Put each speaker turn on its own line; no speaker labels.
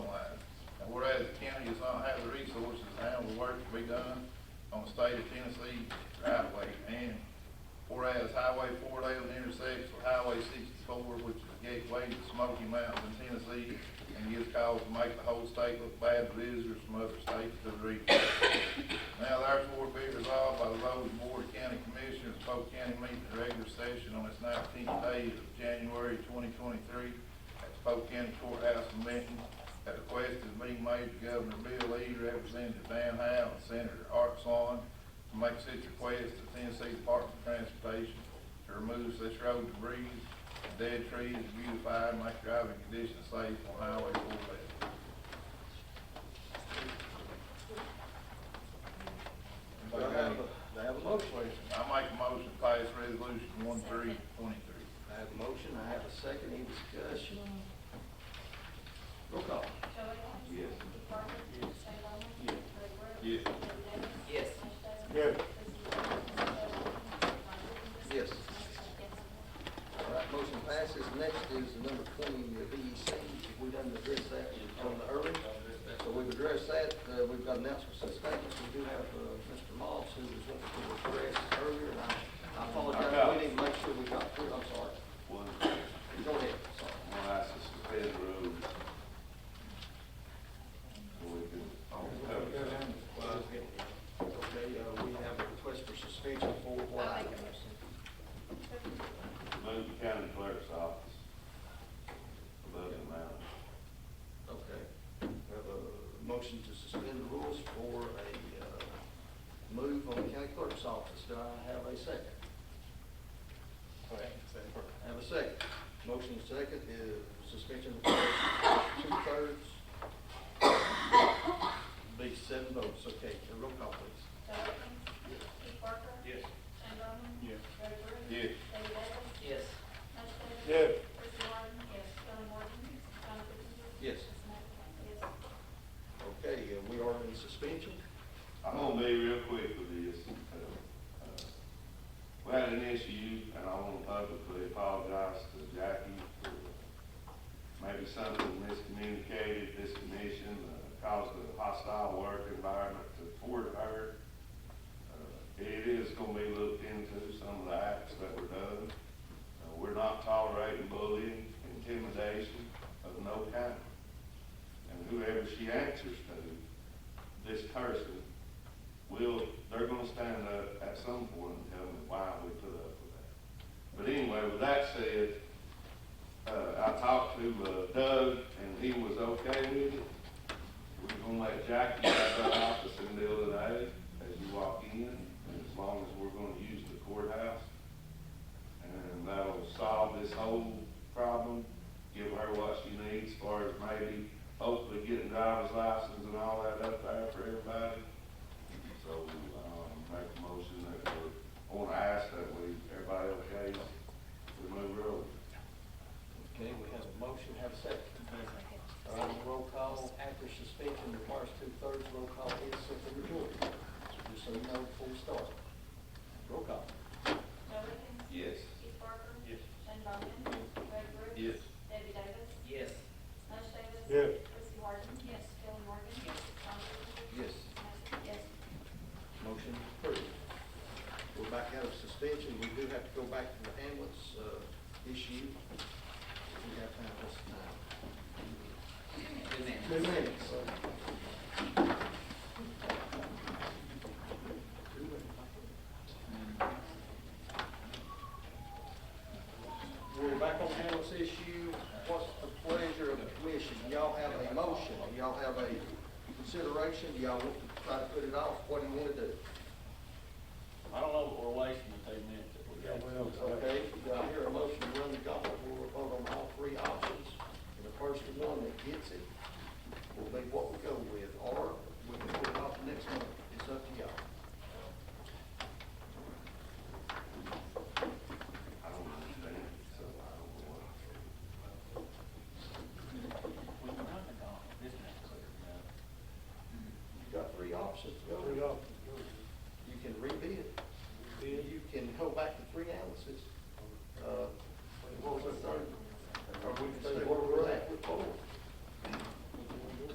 be done on state of Tennessee right of way. And whereas Highway four eleven intersects with Highway sixty-four, which is the gateway to the Smoky Mountains in Tennessee, and gives cause to make the whole state look bad to visitors from other states to the region. Now therefore be resolved by the Road and Board of County Commissioners, Polk County meeting in regular session on its nineteenth day of January twenty twenty-three at the Polk County Courthouse in Benton. At the request of being made to Governor Bill Lee, Representative Dan Howe, and Senator Art Swan to make such request to Tennessee Department of Transportation to remove such road debris and dead trees, and beautify and make driving conditions safe on Highway four eleven.
Do I have, a- do I have a motion?
I make a motion to pass resolution one three twenty-three.
I have a motion, I have a second, any discussion? Roll call.
Joey Wright?
Yes.
Steve Parker? Yes. Shane Bowman?
Yes.
Greg Brooks?
Yes.
Billy Davis?
Yes.
Yes.
Mush Davis? Chrissy Teigen? Michelle Williams?
Yes.
Motion carries.
All right, motion passes, next is number twenty, the VEC, we done addressed that on the early. So we've addressed that, uh, we've got announcements and statements, we do have, uh, Mr. Moss, who was wanting to address earlier, and I, I apologize, we need to make sure we got through, I'm sorry.
One, when
Go ahead, sorry.
I suspend rules. So we can, on cover.
Okay, uh, we have a request for suspension for what
I'll make
item?
a motion.
move the county clerk's office above the mountain.
Okay, we have a motion to suspend the rules for a, uh, move on the county clerk's office, do I have a second? I Have a second. Motion is second, uh, suspension of two-thirds. Be seven votes, okay, uh, roll call please.
Joey Wright? Steve Parker? Yes. Shane Bowman? Yes. Greg Brooks?
Yes.
Yes.
Billy Davis? Mush Davis?
Yes.
Chrissy Teigen? Yes. Joey Wright? John Kipinger?
Yes.
Jason Matt? Yes.
Okay, uh, we are in suspension.
I'm gonna be real quick with this. Uh, uh, We had an issue, and I want to publicly apologize to Jackie for maybe something miscommunicated, this commission uh, caused a hostile work environment to toward her. Uh, It is gonna be looked into, some of the acts that were done. Uh, We're not tolerating bullying, intimidation of no kind. And whoever she answers to, this person will, they're gonna stand up at some point and tell me why we put up with that. But anyway, with that said, uh, I talked to uh, Doug and he was okay with it. We're gonna let Jackie have her office in the middle of the day as you walk in, and as long as we're gonna use the courthouse. And that'll solve this whole problem, give her what she needs as far as maybe hopefully getting driver's license and all that up there for everybody. So, um, make a motion that we, I wanna ask that we, everybody okay, we move road.
Okay, we have a motion, have a second. All right, Uh, roll call after suspension requires two-thirds, roll call is simply majority. Just so you know before we start. Roll call.
Joey Wright?
Yes.
Steve Parker?
Yes.
Shane Bowman? Greg Brooks?
Yes.
Debbie Davis?
Yes.
Mush Davis?
Yes.
Chrissy Harden? Yes. Kelly Morgan? Yes. John Kipinger?
Yes.
Yes.
Motion approved. We're back out of suspension, we do have to go back to the ambulance, uh, issue. We have time this time.
Good man.
Two minutes. Two minutes. We're back on ambulance issue, what's the pleasure of the commission? Do y'all have a motion, do y'all have a consideration, do y'all want to try to put it off, what do you wanna do?
I don't know what relation to two minutes that we got.
Okay, do I hear a motion to run the gauntlet, we'll vote on all three options, and the first one that gets it Uh,